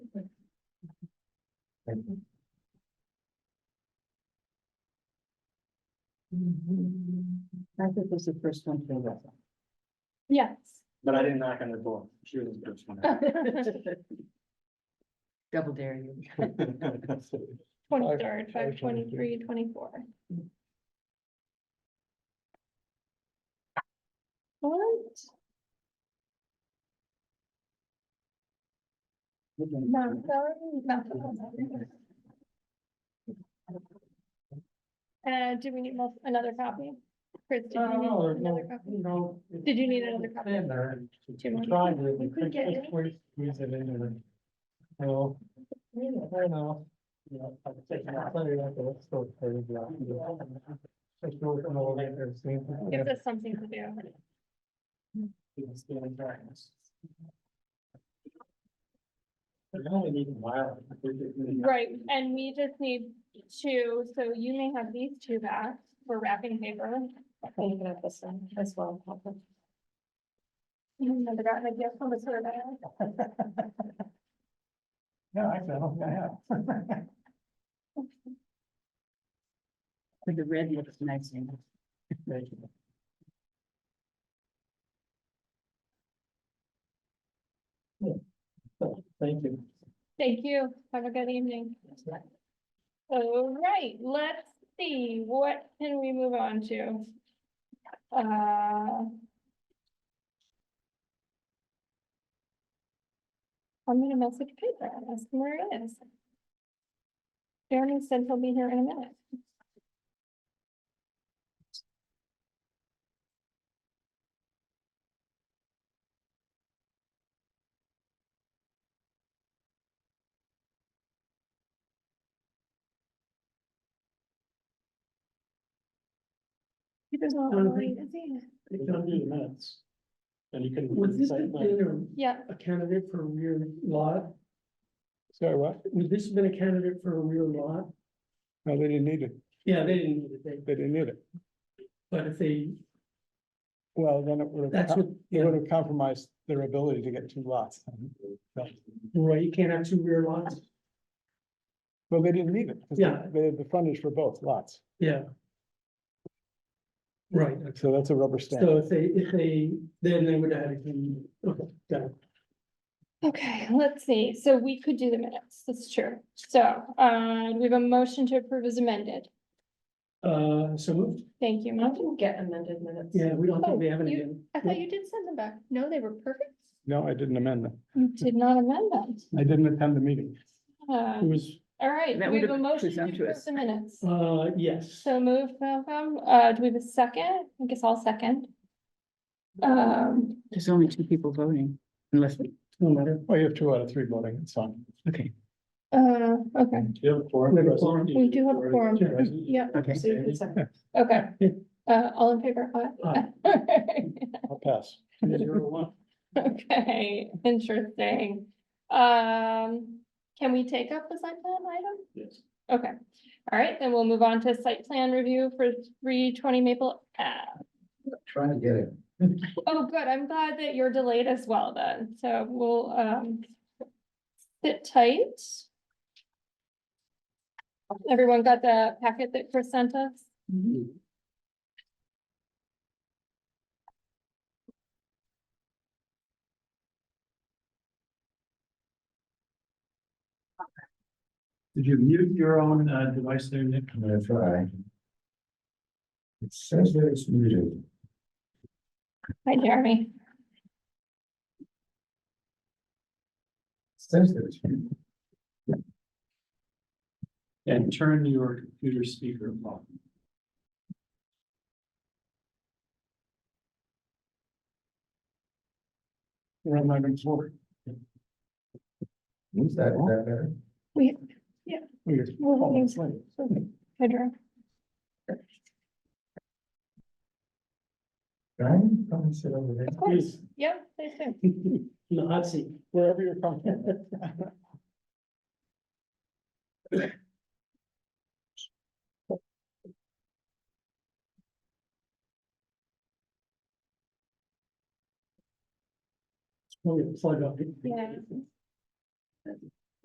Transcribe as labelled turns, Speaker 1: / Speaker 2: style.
Speaker 1: I think this is the first one for that.
Speaker 2: Yes.
Speaker 3: But I didn't knock on the door. She was the first one.
Speaker 1: Double dare you.
Speaker 2: Twenty-third, five
Speaker 4: five twenty
Speaker 2: twenty-three, twenty-four. What? Not going, not going. Uh, do we need mul- another copy? Chris, did you
Speaker 4: No,
Speaker 2: need
Speaker 4: Uh, no,
Speaker 2: another copy?
Speaker 4: Oh, you know.
Speaker 2: Did you need another copy?
Speaker 4: In there.
Speaker 2: Do you want-
Speaker 4: Tried to, we
Speaker 2: you could
Speaker 4: could
Speaker 2: get
Speaker 4: just
Speaker 2: it.
Speaker 4: squeeze squeeze it in there. So. You know, I know. You know, I'm taking out plenty of that, it's still pretty black. Just go from over there, see if we
Speaker 2: Gives
Speaker 4: can-
Speaker 2: us something to do.
Speaker 4: it's still in darkness. But now we need a while.
Speaker 2: Right, and we just need two, so you may have these two back for wrapping paper.
Speaker 5: I'm gonna have this one as well.
Speaker 2: You never got an idea from the survey.
Speaker 4: Yeah, actually, I "Oh, don't think I have.
Speaker 1: But the red looks nice. in it.
Speaker 4: Thank you. Yeah. So, Thank you.
Speaker 2: Thank you, have a good evening. All right, let's see, what can we move on to? Uh. I'm gonna message Peter, and ask him where it is. Jeremy said he'll be here in a minute. He doesn't want to
Speaker 4: Jonathan?
Speaker 2: worry, does he?
Speaker 4: You can do the minutes. And you can.
Speaker 6: Was this have been
Speaker 2: Yeah,
Speaker 6: a a candidate for a rear lot?
Speaker 7: Sorry, what?
Speaker 6: Would this have been a candidate for a rear lot?
Speaker 7: No, they didn't need it.
Speaker 6: Yeah, they didn't need it, they-
Speaker 7: They didn't need it.
Speaker 6: but if they,
Speaker 7: Well, then it would
Speaker 6: that's
Speaker 7: have,
Speaker 6: what,
Speaker 7: it would
Speaker 6: yeah,
Speaker 7: have compromised their ability to get two lots.
Speaker 6: right, you can't have two rear lots,
Speaker 7: Well, they didn't need it. 'cause they-
Speaker 6: Yeah.
Speaker 7: They had the frontage for both lots.
Speaker 6: yeah. Right,
Speaker 7: So that's a rubber stamp.
Speaker 6: so if they, if they, then they would have, had a candidate. okay, got it.
Speaker 2: Okay, let's see, so we could do the minutes, that's true. So, uh, we have a motion to approve as amended.
Speaker 6: Uh, so moved,
Speaker 2: Thank you,
Speaker 5: I
Speaker 2: Monty.
Speaker 5: didn't get amended minutes.
Speaker 6: yeah, we don't think we have
Speaker 2: Oh,
Speaker 6: any.
Speaker 2: you-
Speaker 6: again.
Speaker 2: I thought you did send them back. No, they were perfect.
Speaker 7: No, I didn't amend them.
Speaker 2: You did not amend them.
Speaker 7: I didn't attend the meeting.
Speaker 2: Uh,
Speaker 6: It was,
Speaker 2: all right,
Speaker 1: That
Speaker 2: we
Speaker 1: would
Speaker 2: have a
Speaker 1: have been
Speaker 2: motion to approve
Speaker 1: presumptuous.
Speaker 2: the minutes.
Speaker 6: uh, yes,
Speaker 2: So moved, Malcolm. Uh, do we have a second? I guess I'll second. Um,
Speaker 1: There's only two people voting unless,
Speaker 6: no matter.
Speaker 7: Well, you have two out of three voting, it's fine.
Speaker 1: okay,
Speaker 2: uh, okay,
Speaker 3: Do you have a forum?
Speaker 6: We have a forum.
Speaker 2: We do have a forum. yeah,
Speaker 1: okay.
Speaker 5: So you can second.
Speaker 2: okay. Uh, all in favor?
Speaker 6: Aye.
Speaker 2: Aye.
Speaker 7: I'll pass.
Speaker 6: Zero one.
Speaker 2: Okay, interesting. Um, can we take up the site plan item?
Speaker 6: Yes.
Speaker 2: Okay, all right, then we'll move on to site plan review for three twenty Maple Ave.
Speaker 3: Trying to get it.
Speaker 2: Oh, good, I'm glad that you're delayed as well then, so we'll, um, sit tight. Everyone got the packet that Chris sent us?
Speaker 4: Did you mute your own uh, device there, Nick?
Speaker 3: I'm gonna try. It says that it's muted.
Speaker 2: Hi, Jeremy.
Speaker 3: Says that it's muted.
Speaker 4: And turn your computer speaker off.
Speaker 7: We're on item four.
Speaker 3: Is that, is that better?
Speaker 7: We're-
Speaker 2: Well,
Speaker 7: oh,
Speaker 2: thanks.
Speaker 7: it's late.
Speaker 2: Pedro.
Speaker 3: Brian, come and sit over there.
Speaker 2: Of course, yeah, they do.
Speaker 6: In the hot seat.
Speaker 7: Wherever you're comfortable.
Speaker 6: Plug up.
Speaker 2: Yeah.